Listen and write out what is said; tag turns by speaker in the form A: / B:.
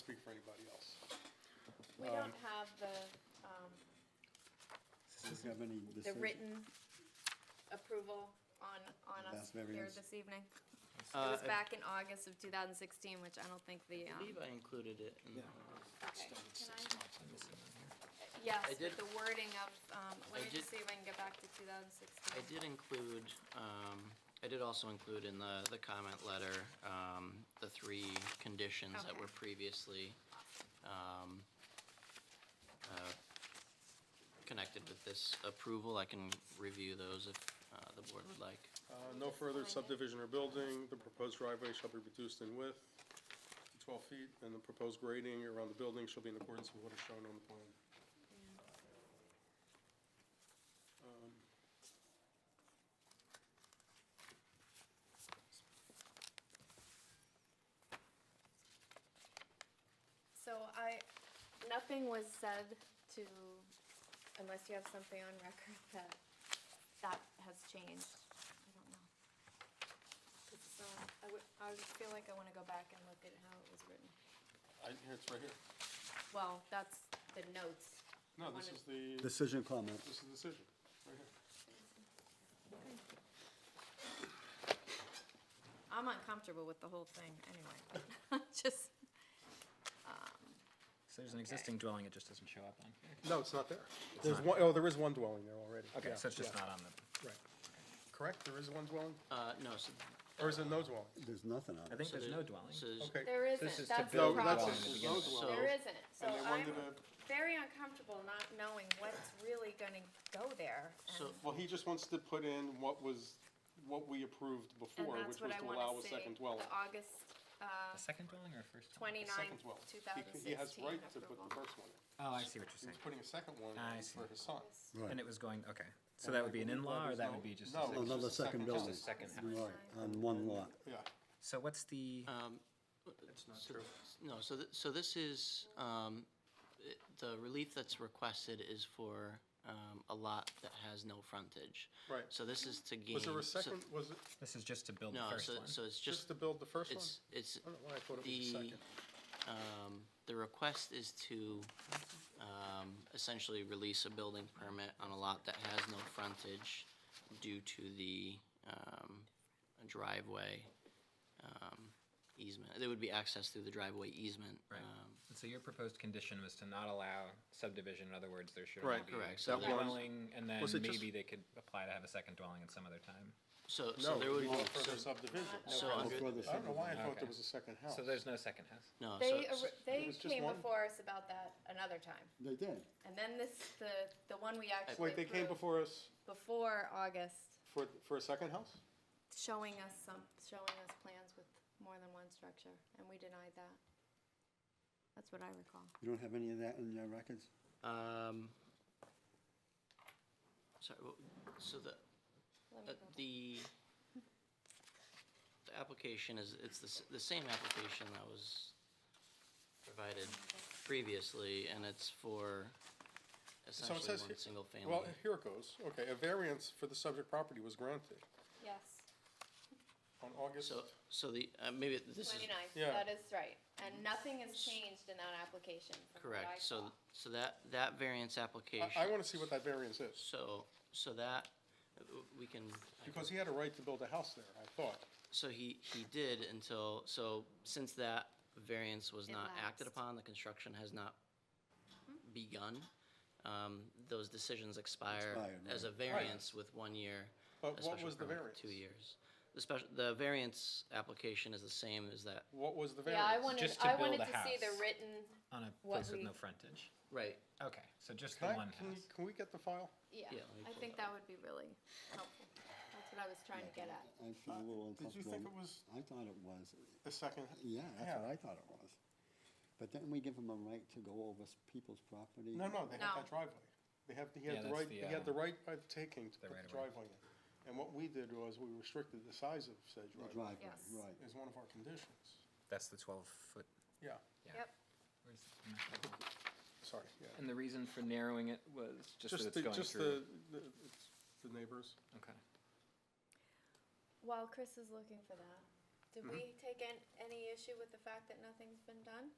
A: speak for anybody else.
B: We don't have the, um,
C: Does have any
B: the
C: decision?
B: written approval on, on us
C: That's very
B: here
C: nice.
B: this evening. It
D: Uh,
B: was
D: I
B: back in August of two thousand sixteen, which I don't think the, um,
D: believe I included it. in the-
B: okay, can I? Yes,
D: I did-
B: but the wording of, um, let
D: I
B: me just see
D: did-
B: if I can get back to two thousand sixteen.
D: I did include, um, I did also include in the, the comment letter, um, the three conditions that
B: Okay.
D: were previously, um, uh, connected with this approval. I can review those if, uh, the board would like.
A: Uh, No further subdivision or building, the proposed driveway shall be reduced in width to 12 feet, and the proposed grading around the building shall be in accordance with what is shown on the plan. Um,
B: So I, nothing was said to, unless you have something on record that, that has changed. I don't know. 'Cause it's not- I would, I would feel like I wanna go back and look at how it was written.
A: I, here, it's right here.
B: Well, that's the notes.
A: No, this is the, this
C: Decision comment.
A: is the decision, right here.
B: I'm uncomfortable with the whole thing anyway. Just,
E: So there's an existing dwelling, it just doesn't show up on here.
A: No, it's not there. There's one, oh, there is one dwelling there already.
E: Okay,
A: Yeah,
E: so it's just
A: yeah,
E: not on the,
A: Right. Correct, there is one dwelling,
D: Uh, no, so.
A: or is it no dwelling?
C: There's nothing on it.
E: I think there's
D: there-
E: no dwelling.
D: So there's-
A: Okay.
B: there
E: This
B: isn't,
E: is to
B: that's the
A: No,
E: build a
A: that's,
E: dwelling
A: just
B: problem.
E: to begin
A: no
E: with.
D: So-
B: There
A: dwelling.
B: isn't, so
A: And they
B: I'm
A: wanted to,
B: very uncomfortable not knowing what's really gonna go there.
D: So-
A: well, he just wants to put in what was, what we approved
B: And
A: before,
B: that's
A: which
B: what
A: was
B: I
A: to
B: wanna
A: allow a
B: see,
A: second dwelling.
B: The August, uh,
E: A second dwelling or a first? dwelling?
A: Second
B: twenty-ninth,
A: dwelling.
B: two
A: He
B: thousand
A: c-
B: sixteen
A: He has right to put
B: approval.
A: the first one in.
E: Oh, I see what
A: He
E: you're
A: was
E: saying.
A: putting a second one
E: I
A: in
E: see.
A: for his son.
C: Right.
E: And it was going, okay. So that would be an in-law or that would be just? a
A: No,
E: second-
A: it's just a
C: Another
A: second
C: second
A: house.
C: building.
A: Just a
E: second house.
C: Right, on one lot.
A: Yeah,
E: So what's the,
A: Uh,
D: Um, so- No, so, th- so this is, um, it- the relief that's requested is for, um, a lot that has no frontage.
A: Right.
D: So this is to gain.
A: was there a
D: so-
A: second, was it
E: this is just to build the
D: No,
E: first
D: so,
E: one?
D: so it's
A: just
D: just,
A: to build the first one?
D: it's, it's,
A: I don't know why I thought it was a
D: the,
A: second.
D: um, the request is to, um, essentially release a building permit on a lot that has no frontage due to the, um, driveway, um, easement. There would be access through the driveway easement.
E: Right.
D: um,
E: And so your proposed condition was to not allow subdivision, in other words, there should
A: Right.
E: only be
D: Correct, so
E: a
D: that was-
E: dwelling, and then
A: Was it just-
E: maybe they could apply to have a second dwelling at some other time.
D: So, so
A: No,
D: there would,
A: we want
D: so,
A: further subdivision.
D: so under,
C: Before
A: I
C: the
A: don't know
C: second
A: why I
C: one.
A: thought there
E: Okay.
A: was a second house.
E: So there's no second house.
D: no, so,
B: They, ar-
A: it
B: they
A: was just
B: came
A: one?
B: before us about that another time,
C: They did.
B: and then this, the, the one we actually
A: Wait, they came
B: approved
A: before us
B: before August,
A: for, for a second house?
B: showing us some, showing us plans with more than one structure, and we denied that. That's what I recall.
C: You don't have any of that in your records?
D: um, sorry, wha- so the,
B: Let
D: uh,
B: me go.
D: the, the application is, it's the, s- the same application that was provided previously, and it's for
A: So
D: essentially
A: it says
D: one
A: here-
D: single family.
A: Well, here it goes. Okay, a variance for the subject property was granted
B: Yes,
A: on August.
D: So, so the, uh, maybe this is.
B: twenty-ninth,
A: Yeah.
B: that is right, and nothing has changed in that application from what I
D: Correct, so,
B: saw.
D: so that, that variance application.
A: I, I wanna see what that variance is,
D: So, so that, uh, we can. I can-
A: because he had a right to build a house there, I thought.
D: So he, he did until, so since that variance was
B: It
D: not acted
B: lapsed. Mm-hmm.
D: upon, the construction has not begun, um, those decisions expire
C: Expired,
D: as a
C: right.
D: variance with one year.
A: But
D: a
A: what
D: special
A: was the
D: permit with Two
A: variance?
D: years. The special, the variance application is the same as that,
A: What was the
B: Yeah, I
A: variance?
B: wanted,
E: Just to
B: I
E: build
B: wanted
E: a
B: to see the
E: house.
B: written,
E: On a
B: What
E: place with
B: we-
E: no frontage.
D: right,
E: Okay, so just the
A: Can I,
E: one
A: can, you-
E: house.
A: can we get the file?
B: yeah,
D: Yeah, let me
B: I
D: pull
B: think
D: that
B: that would be really helpful, that's what I was trying to get at.
C: I feel a little
A: Did you think it
C: uncomfortable.
A: was
C: I thought it was.
A: the second?
C: Yeah, that's
A: Yeah.
C: what I thought it was. But didn't we give them a right to go over s- people's property?
A: No, no, they had
B: No.
A: that driveway. They have, he
E: Yeah,
A: had the
E: that's
A: right,
E: the,
A: he had
E: uh,
A: the right by the taking to
E: the
A: put the
E: right-of-way.
A: driveway in. And what we did was we restricted the size of said
C: The
A: driveway
C: driveway,
B: Yes.
C: right.
A: is one of our conditions.
E: That's the twelve foot.
A: Yeah,
E: Yeah.
B: Yep,
E: Where's the map?
A: sorry, yeah.
E: And the reason for narrowing it was just that
A: Just
E: it's
A: the,
E: going
A: just
E: through?
A: the, the, it's the neighbors.
E: Okay.
B: Mm-hmm. while Chris is looking for that, did we take an, any issue with the fact that nothing's been done?